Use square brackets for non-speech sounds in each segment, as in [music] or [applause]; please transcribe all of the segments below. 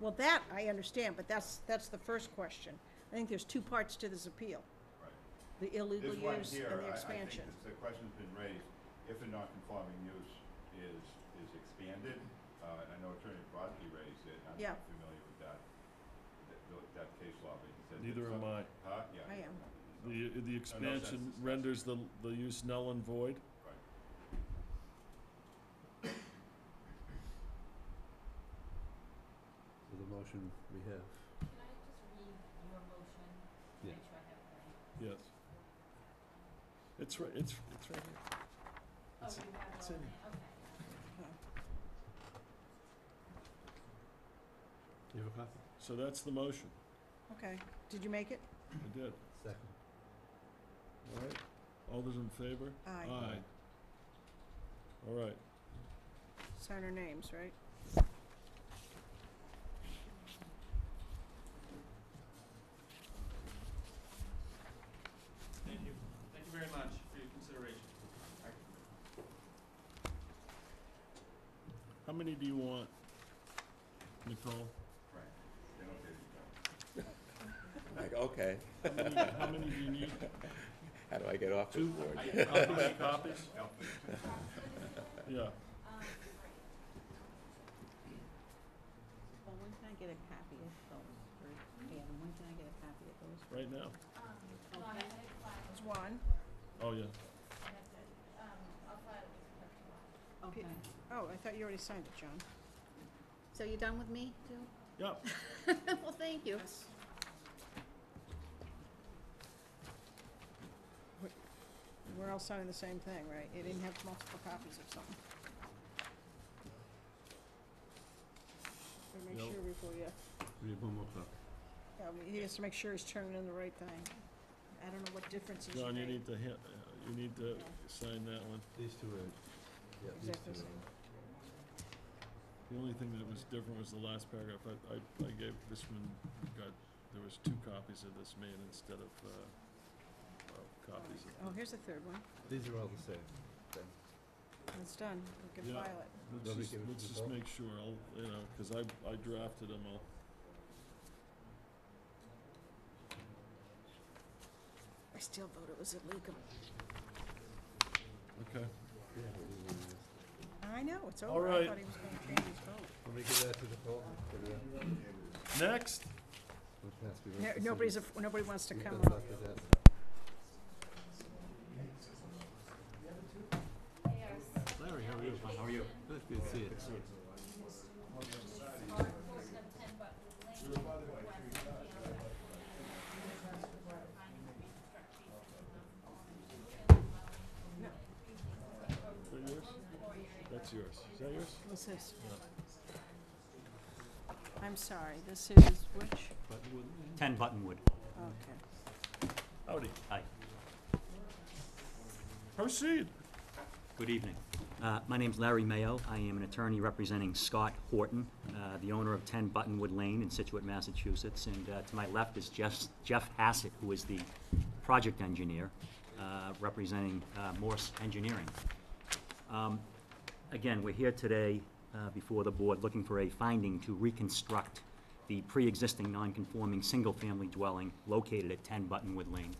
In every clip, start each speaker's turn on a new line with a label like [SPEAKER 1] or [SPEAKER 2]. [SPEAKER 1] Well, that I understand, but that's, that's the first question. I think there's two parts to this appeal,
[SPEAKER 2] right.
[SPEAKER 1] the illegal
[SPEAKER 2] This one
[SPEAKER 1] use
[SPEAKER 2] here,
[SPEAKER 1] and the
[SPEAKER 2] I-
[SPEAKER 1] expansion.
[SPEAKER 2] I think this- the question's been raised, if a non-conforming use is, is expanded, uh, and I know Attorney Brodsky raised it, I'm
[SPEAKER 1] Yeah.
[SPEAKER 2] not familiar with that, that, tho- that case law, but he said. that
[SPEAKER 3] Neither
[SPEAKER 2] some-
[SPEAKER 3] am I.
[SPEAKER 2] Huh, yeah.
[SPEAKER 1] I am.
[SPEAKER 2] So-
[SPEAKER 3] The, the expansion
[SPEAKER 2] that's-
[SPEAKER 3] renders the, the use null and void.
[SPEAKER 2] Right.
[SPEAKER 4] So the motion we have.
[SPEAKER 5] Can I just read your motion?
[SPEAKER 4] Yeah.
[SPEAKER 5] Make sure I have it right.
[SPEAKER 3] Yes. It's right, it's, it's right here.
[SPEAKER 5] Oh, you
[SPEAKER 3] It's-
[SPEAKER 5] have it
[SPEAKER 3] it's
[SPEAKER 5] all
[SPEAKER 3] in
[SPEAKER 5] in it, okay.
[SPEAKER 1] Uh-huh.
[SPEAKER 4] You have a copy?
[SPEAKER 3] So that's the motion.
[SPEAKER 1] Okay, did you make it?
[SPEAKER 3] I did.
[SPEAKER 4] Second.
[SPEAKER 3] All right. All those in favor?
[SPEAKER 1] Aye.
[SPEAKER 3] Aye. All right.
[SPEAKER 1] Sign our names, right?
[SPEAKER 6] Thank you. Thank you very much for your consideration.
[SPEAKER 3] How many do you want,
[SPEAKER 6] [laughs]
[SPEAKER 3] Nicole?
[SPEAKER 2] Right, they don't give you that.
[SPEAKER 7] Like, okay,
[SPEAKER 3] How many, how many do you need?
[SPEAKER 7] how do I get off this
[SPEAKER 3] Two?
[SPEAKER 7] board?
[SPEAKER 3] How many copies? Yeah.
[SPEAKER 8] Well, when can I get a copy of those, or, yeah, when can I get a copy of those?
[SPEAKER 3] Right now?
[SPEAKER 5] Um, no, I had it flat,
[SPEAKER 1] There's one.
[SPEAKER 3] Oh, yeah.
[SPEAKER 5] I have to, um, I'll file it with the clerk.
[SPEAKER 8] Okay,
[SPEAKER 1] Oh, I thought you already signed it, John.
[SPEAKER 8] so you done with me, too?
[SPEAKER 3] Yep.
[SPEAKER 8] [laughs] Well, thank you.
[SPEAKER 1] We're all signing the same thing, right? You didn't have multiple copies of something. Better make
[SPEAKER 3] Nope.
[SPEAKER 1] sure before you,
[SPEAKER 4] We have one more copy.
[SPEAKER 1] yeah, he has to make sure he's turning in the right thing. I don't know what difference he should
[SPEAKER 3] John, you
[SPEAKER 1] make.
[SPEAKER 3] need to, ha- you need to sign that one.
[SPEAKER 4] These two are, yeah, these
[SPEAKER 1] Exactly
[SPEAKER 4] two
[SPEAKER 1] same.
[SPEAKER 4] are.
[SPEAKER 3] The only thing that was different was the last paragraph. I, I, I gave, this one got, there was two copies of this made instead of, uh, well, copies
[SPEAKER 1] Oh,
[SPEAKER 3] of.
[SPEAKER 1] here's the third one.
[SPEAKER 4] These are all the same. then.
[SPEAKER 1] It's done. We can
[SPEAKER 3] Yeah.
[SPEAKER 1] file it.
[SPEAKER 3] Let's
[SPEAKER 4] Nobody
[SPEAKER 3] just,
[SPEAKER 4] gave it to
[SPEAKER 3] let's
[SPEAKER 4] the
[SPEAKER 3] just
[SPEAKER 4] vote?
[SPEAKER 3] make sure, I'll, you know, cause I, I drafted them all.
[SPEAKER 1] I still vote it was illegal.
[SPEAKER 3] Okay.
[SPEAKER 4] Yeah, we do one last.
[SPEAKER 1] I know, it's
[SPEAKER 3] All
[SPEAKER 1] over. I
[SPEAKER 3] right.
[SPEAKER 1] thought he was gonna change his vote.
[SPEAKER 4] Let me give that to the poll.
[SPEAKER 3] Next,
[SPEAKER 1] No- Nobody's, af- nobody wants to come up.
[SPEAKER 4] Larry, how are you? How are you? Good, good to see you.
[SPEAKER 3] is that yours? That's yours. Is that yours?
[SPEAKER 1] What's this? I'm sorry, this is which?
[SPEAKER 9] Ten Buttonwood.
[SPEAKER 1] Okay.
[SPEAKER 3] Howdy.
[SPEAKER 9] Hi.
[SPEAKER 3] Proceed.
[SPEAKER 9] Good evening. Uh, My name's Larry Mayo. I am an attorney representing Scott Horton, uh, the owner of 10 Buttonwood Lane in Situate, Massachusetts. And uh, to my left is Jeff Jeff Hassett, who is the project engineer, uh, representing uh, Morse Engineering. Um, Again, we're here today uh, before the board looking for a finding to reconstruct the pre-existing non-conforming single-family dwelling located at 10 Buttonwood Lane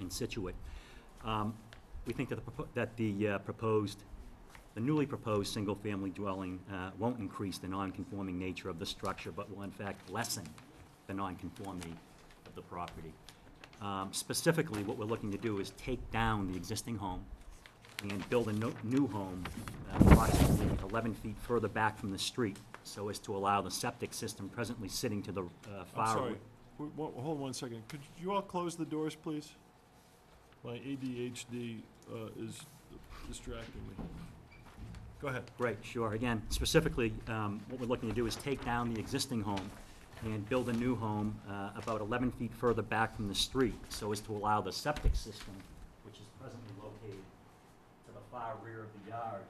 [SPEAKER 9] in Situate. Um, We think that the, propo- that the uh, proposed, the newly proposed single-family dwelling uh, won't increase the non-conforming nature of the structure, but will in fact lessen the non-conformity of the property. Um, Specifically, what we're looking to do is take down the existing home, and build a no- new home uh, approximately 11 feet further back from the street so as to allow the septic system presently sitting to the uh,
[SPEAKER 3] I'm
[SPEAKER 9] far.
[SPEAKER 3] sorry. W- wo- Hold one second. Could you all close the doors, please? My ADHD uh, is distracting me. Go ahead.
[SPEAKER 9] Great, sure. Again, specifically, um, what we're looking to do is take down the existing home and build a new home uh, about 11 feet further back from the street so as to allow the septic system, which is presently located to the far rear of the yard,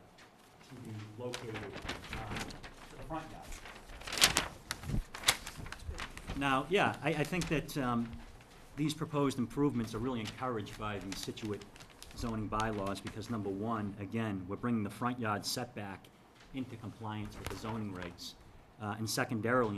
[SPEAKER 9] to be located uh, to the front yard. Now, yeah, I, I think that um, these proposed improvements are really encouraged by the Situate zoning bylaws because number one, again, we're bringing the front yard setback into compliance with the zoning regs. Uh, And secondarily,